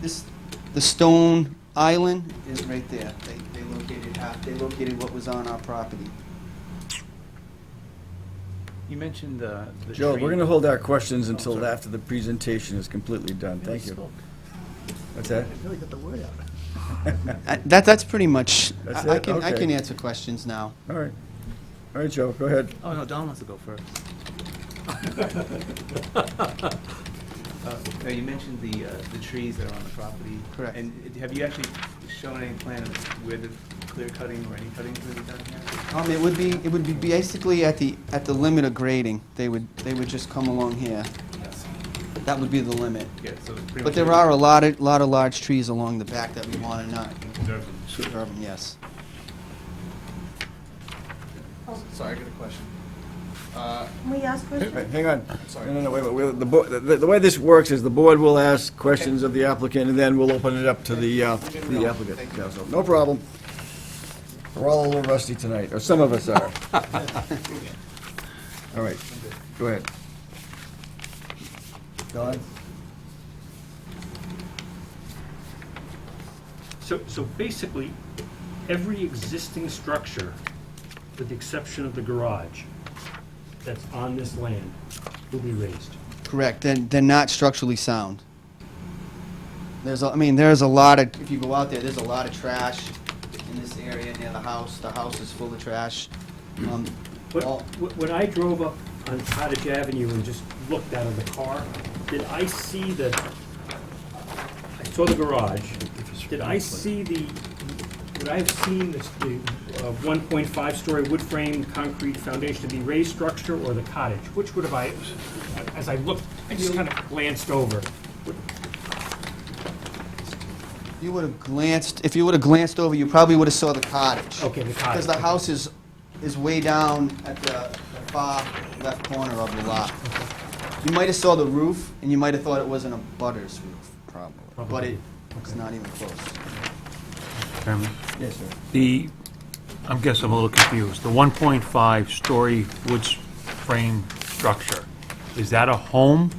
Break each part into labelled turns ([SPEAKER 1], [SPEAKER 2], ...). [SPEAKER 1] This, the stone island is right there. They, they located half, they located what was on our property.
[SPEAKER 2] You mentioned the, the
[SPEAKER 3] Joe,
[SPEAKER 2] tree.
[SPEAKER 3] we're gonna hold our questions until
[SPEAKER 2] sorry.
[SPEAKER 3] after the presentation is completely done. Thank you. What's that?
[SPEAKER 4] Really got the word out.
[SPEAKER 1] Uh, That, that's pretty much,
[SPEAKER 3] That's
[SPEAKER 1] I I
[SPEAKER 3] it?
[SPEAKER 1] can, I
[SPEAKER 3] Okay.
[SPEAKER 1] can answer questions now.
[SPEAKER 3] All right. All right, Joe, go ahead.
[SPEAKER 2] Oh, no, Don wants to go first. Uh, no, you mentioned the, uh, the trees that are on the property.
[SPEAKER 1] Correct.
[SPEAKER 2] And have you actually shown any plan of where the clear cutting or any cutting is gonna be done here?
[SPEAKER 1] Um, it would be, it would be basically at the, at the limit of grading. They would, they would just come along here.
[SPEAKER 2] Yes.
[SPEAKER 1] That would be the limit.
[SPEAKER 2] Yeah, so it's pretty much.
[SPEAKER 1] But there are a lot of, lot of large trees along the back that we want to not
[SPEAKER 2] Observe them.
[SPEAKER 1] disturb 'em, yes.
[SPEAKER 5] Sorry, I got a question. Uh,
[SPEAKER 4] Can we ask
[SPEAKER 3] Wait,
[SPEAKER 4] questions?
[SPEAKER 3] Hang on.
[SPEAKER 5] Sorry.
[SPEAKER 3] No, no, no, wait, wait, wait. The bo- The the way this works is the board will ask questions of the applicant, and then we'll open it up to the uh,
[SPEAKER 5] Didn't
[SPEAKER 3] the
[SPEAKER 5] know.
[SPEAKER 3] applicant.
[SPEAKER 5] Thank
[SPEAKER 3] Yeah, so, No problem. We're all a little rusty tonight, or some of us are. All right, go ahead. Don?
[SPEAKER 6] So, so basically, every existing structure, with the exception of the garage, that's on this land will be raised.
[SPEAKER 1] Correct, and they're not structurally sound. There's, a- I mean, there's a lot of, if you go out there, there's a lot of trash in this area near the house. The house is full of trash. Um,
[SPEAKER 6] But
[SPEAKER 1] all-
[SPEAKER 6] wh- when I drove up on Cottage Avenue and just looked out of the car, did I see the, I saw the garage. Did I see the, would I have seen this- the uh, 1.5-story wood frame concrete foundation to be raised structure or the cottage? Which would have I, as I looked, I just kind of glanced over.
[SPEAKER 1] You would have glanced, if you would have glanced over, you probably would have saw the cottage.
[SPEAKER 6] Okay, the
[SPEAKER 1] Because
[SPEAKER 6] cottage.
[SPEAKER 1] the house is, is way down at the the far left corner of the lot. You might have saw the roof, and you might have thought it wasn't a butter's roof, probably. But it, it's not even close.
[SPEAKER 7] Chairman,
[SPEAKER 3] Yes, sir.
[SPEAKER 7] the, I guess I'm a little confused. The 1.5-story wood s- frame structure, is that a home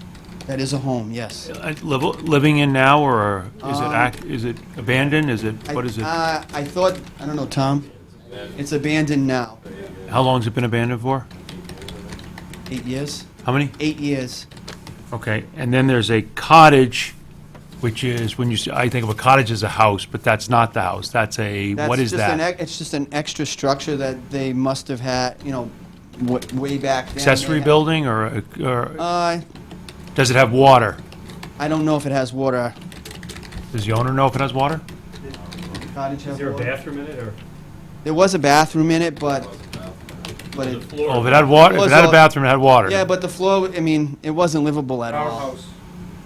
[SPEAKER 1] That is a home, yes.
[SPEAKER 7] uh, liv- living in now, or is it, act- is it abandoned? Is it,
[SPEAKER 1] Um, I-
[SPEAKER 7] what is it?
[SPEAKER 1] Uh, I thought, I don't know, Tom. It's abandoned now.
[SPEAKER 7] How long's it been abandoned for?
[SPEAKER 1] Eight years?
[SPEAKER 7] How many?
[SPEAKER 1] Eight years.
[SPEAKER 7] Okay, and then there's a cottage, which is, when you, s- I think of a cottage as a house, but that's not the house. That's a,
[SPEAKER 1] That's
[SPEAKER 7] what is
[SPEAKER 1] just an
[SPEAKER 7] that?
[SPEAKER 1] ex- It's just an extra structure that they must have had, you know, wa- way back then. they
[SPEAKER 7] Accessory
[SPEAKER 1] had-
[SPEAKER 7] building, or, a- or,
[SPEAKER 1] Uh,
[SPEAKER 7] does it have water?
[SPEAKER 1] I don't know if it has water. uh,
[SPEAKER 7] Does the owner know if it has water?
[SPEAKER 1] Cottage
[SPEAKER 6] Is
[SPEAKER 1] have
[SPEAKER 6] there a
[SPEAKER 1] water?
[SPEAKER 6] bathroom in it, or?
[SPEAKER 1] There was a bathroom in it, but, but it,
[SPEAKER 7] Oh, if it had water, if it had
[SPEAKER 1] Was
[SPEAKER 7] a
[SPEAKER 1] a-
[SPEAKER 7] bathroom, it had water.
[SPEAKER 1] yeah, but the floor, I mean, it wasn't livable at
[SPEAKER 5] Our
[SPEAKER 1] all.
[SPEAKER 5] house.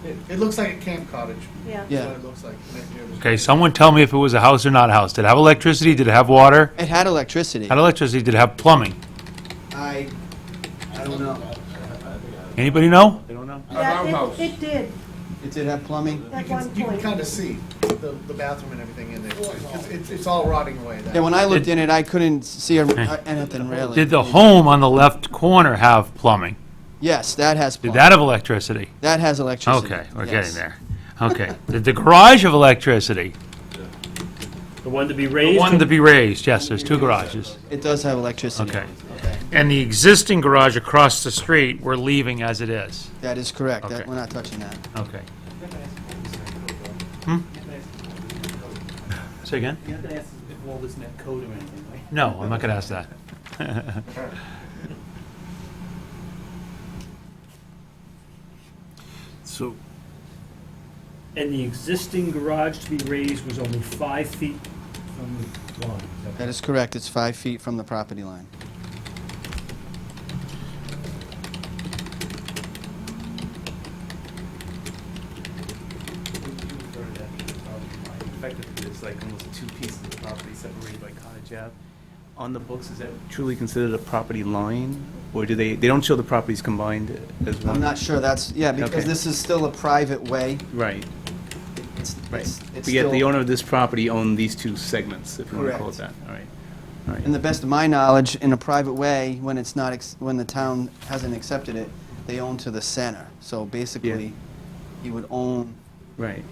[SPEAKER 5] It, it looks like a camp cottage.
[SPEAKER 4] Yeah.
[SPEAKER 1] Yeah.
[SPEAKER 5] That's what it looks like. Next year was-
[SPEAKER 7] Okay, someone tell me if it was a house or not a house. Did it have electricity? Did it have water?
[SPEAKER 1] It had electricity.
[SPEAKER 7] Had electricity? Did it have plumbing?
[SPEAKER 1] I, I don't know.
[SPEAKER 7] Anybody know?
[SPEAKER 2] They don't know?
[SPEAKER 4] Yeah, it-
[SPEAKER 5] outhouse.
[SPEAKER 4] It did,
[SPEAKER 1] It did have plumbing.
[SPEAKER 4] at
[SPEAKER 5] You
[SPEAKER 4] one
[SPEAKER 5] can- You can
[SPEAKER 4] point.
[SPEAKER 5] kind of see the, the bathroom and everything in there. too. It's, it's, it's all rotting away. that-
[SPEAKER 1] Yeah, when I looked in
[SPEAKER 7] Did-
[SPEAKER 1] it, I couldn't see a- anything really.
[SPEAKER 7] Did the home on the left corner have plumbing?
[SPEAKER 1] Yes, that has
[SPEAKER 7] Did
[SPEAKER 1] plumbing.
[SPEAKER 7] that have electricity?
[SPEAKER 1] That has electricity.
[SPEAKER 7] Okay, we're
[SPEAKER 1] yes.
[SPEAKER 7] getting there. Okay. Did the garage have electricity?
[SPEAKER 6] The one to be
[SPEAKER 7] The
[SPEAKER 6] raised?
[SPEAKER 7] one to be raised, yes, there's two garages.
[SPEAKER 1] It does have electricity.
[SPEAKER 7] Okay. And the existing garage across the street, we're leaving as it is?
[SPEAKER 1] That is correct. That,
[SPEAKER 7] Okay.
[SPEAKER 1] we're not touching that.
[SPEAKER 7] Okay. Hmm? Say again?
[SPEAKER 2] You're not gonna ask if all this met code or anything, right?
[SPEAKER 7] No, I'm not going to ask that.
[SPEAKER 3] So,
[SPEAKER 6] And the existing garage to be raised was only five feet from the lawn. is that
[SPEAKER 1] That is correct. It's five feet from the property line.
[SPEAKER 2] Effectively, it's like almost two pieces of property separated by cottage ave. On the books, is that truly considered a property line? Or do they, they don't show the properties combined as one?
[SPEAKER 1] I'm not sure that's, yeah,
[SPEAKER 2] Okay.
[SPEAKER 1] because this is still a private way.
[SPEAKER 2] Right,
[SPEAKER 1] It's,
[SPEAKER 2] right.
[SPEAKER 1] it's, it's
[SPEAKER 2] But yet the
[SPEAKER 1] still-
[SPEAKER 2] owner of this property owned these two segments, if you want to call it that, all right. All
[SPEAKER 1] In
[SPEAKER 2] right.
[SPEAKER 1] the best of my knowledge, in a private way, when it's not, ex- when the town hasn't accepted it, they own to the center. So basically, you would own
[SPEAKER 2] Right,